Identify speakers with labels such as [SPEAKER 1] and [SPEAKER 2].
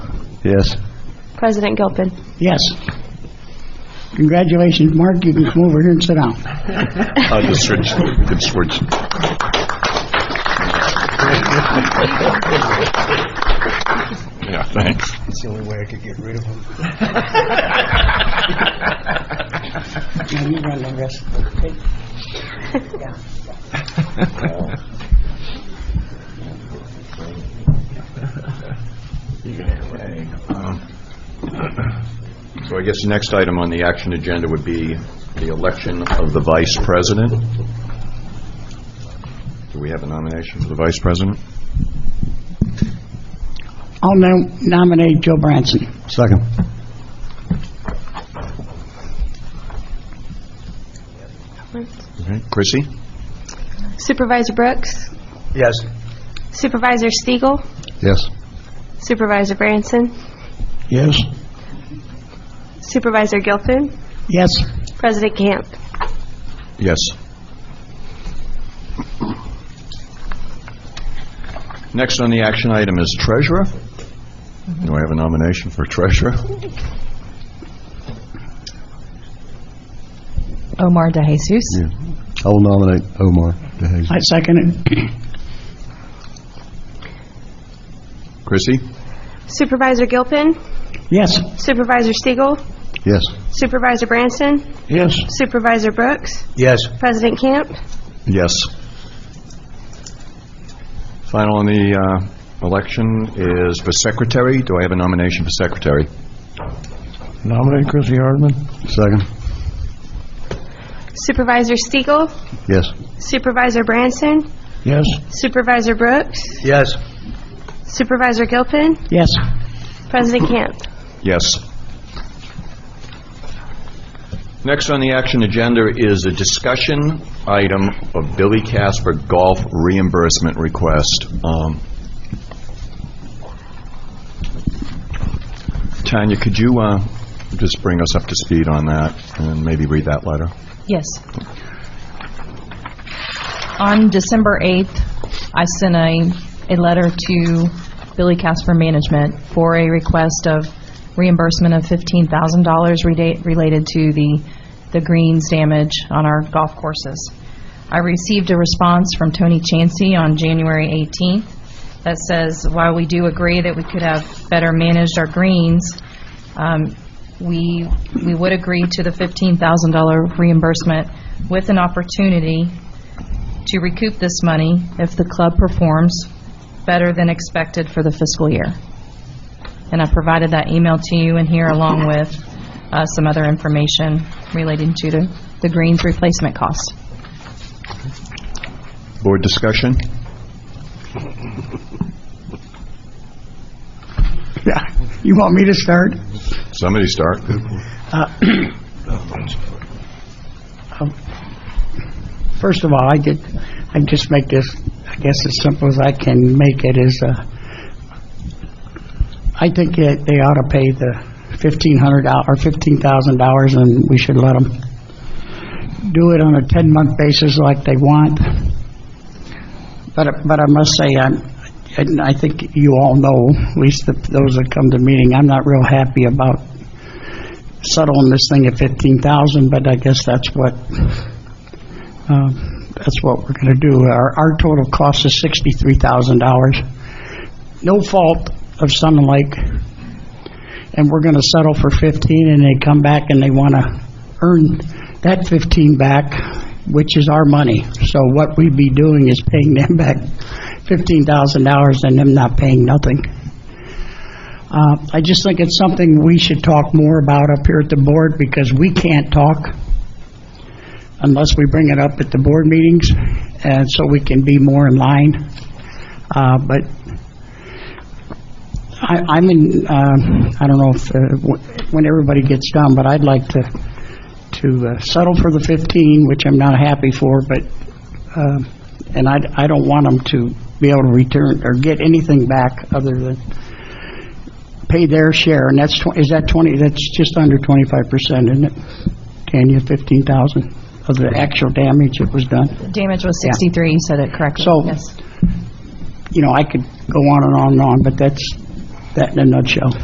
[SPEAKER 1] Yes.
[SPEAKER 2] President Gilpin.
[SPEAKER 3] Yes. Congratulations, Mark, you can come over here and sit down.
[SPEAKER 1] I'll just switch, could switch. Yeah, thanks.
[SPEAKER 3] Yeah, you run the risk.
[SPEAKER 1] So I guess the next item on the action agenda would be the election of the vice president. Do we have a nomination for the vice president?
[SPEAKER 3] I'll nom- nominate Joe Branson.
[SPEAKER 1] Second. Chrissy?
[SPEAKER 2] Supervisor Brooks.
[SPEAKER 1] Yes.
[SPEAKER 2] Supervisor Stiegel.
[SPEAKER 1] Yes.
[SPEAKER 2] Supervisor Branson.
[SPEAKER 3] Yes.
[SPEAKER 2] Supervisor Gilpin.
[SPEAKER 3] Yes.
[SPEAKER 2] President Camp.
[SPEAKER 1] Yes. Next on the action item is treasurer. Do I have a nomination for treasurer?
[SPEAKER 4] Omar DeJesus.
[SPEAKER 1] I will nominate Omar DeHazen.
[SPEAKER 3] I second it.
[SPEAKER 1] Chrissy?
[SPEAKER 2] Supervisor Gilpin.
[SPEAKER 3] Yes.
[SPEAKER 2] Supervisor Stiegel.
[SPEAKER 1] Yes.
[SPEAKER 2] Supervisor Branson.
[SPEAKER 3] Yes.
[SPEAKER 2] Supervisor Brooks.
[SPEAKER 1] Yes.
[SPEAKER 2] President Camp.
[SPEAKER 1] Yes. Final on the uh, election is for secretary. Do I have a nomination for secretary?
[SPEAKER 5] Nominate Chrissy Hardman?
[SPEAKER 1] Second.
[SPEAKER 2] Supervisor Stiegel.
[SPEAKER 1] Yes.
[SPEAKER 2] Supervisor Branson.
[SPEAKER 5] Yes.
[SPEAKER 2] Supervisor Brooks.
[SPEAKER 1] Yes.
[SPEAKER 2] Supervisor Gilpin.
[SPEAKER 3] Yes.
[SPEAKER 2] President Camp.
[SPEAKER 1] Yes. Next on the action agenda is a discussion item of Billy Casper golf reimbursement request. Um, Tanya, could you uh, just bring us up to speed on that and maybe read that letter?
[SPEAKER 4] Yes. On December 8th, I sent a, a letter to Billy Casper Management for a request of reimbursement of $15,000 reda- related to the, the greens damage on our golf courses. I received a response from Tony Chancy on January 18th that says, while we do agree that we could have better managed our greens, um, we, we would agree to the $15,000 reimbursement with an opportunity to recoup this money if the club performs better than expected for the fiscal year. And I provided that email to you and here along with uh, some other information relating to the the greens replacement cost.
[SPEAKER 1] Board discussion?
[SPEAKER 3] Yeah. You want me to start?
[SPEAKER 1] Somebody start.
[SPEAKER 3] First of all, I did, I just make this, I guess as simple as I can make it is, uh, I think that they ought to pay the fifteen hundred dollars or fifteen thousand dollars and we should let them do it on a ten-month basis like they want. But, but I must say, I'm, and I think you all know, at least the- those that come to the meeting, I'm not real happy about settling this thing at fifteen thousand, but I guess that's what um, That's what we're going to do. Our, our total cost is $63,000. No fault of Sun Lake, and we're going to settle for 15, and they come back and they want to earn that 15 back, which is our money. So what we'd be doing is paying them back $15,000 and them not paying nothing. Uh, I just think it's something we should talk more about up here at the board, because we can't talk unless we bring it up at the board meetings, and so we can be more in line. Uh, But I- I'm in, um, I don't know if, uh, wh- when everybody gets done, but I'd like to, to uh, settle for the 15, which I'm not happy for, but, um, and I, I don't want them to be able to return or get anything back other than pay their share, and that's, twen- is that 20, that's just under 25%, isn't it? Tanya, 15,000 of the actual damage that was done.
[SPEAKER 4] Damage was 63, you said it correctly.
[SPEAKER 3] So-
[SPEAKER 4] Yes.
[SPEAKER 3] You know, I could go on and on and on, but that's, that in a nutshell.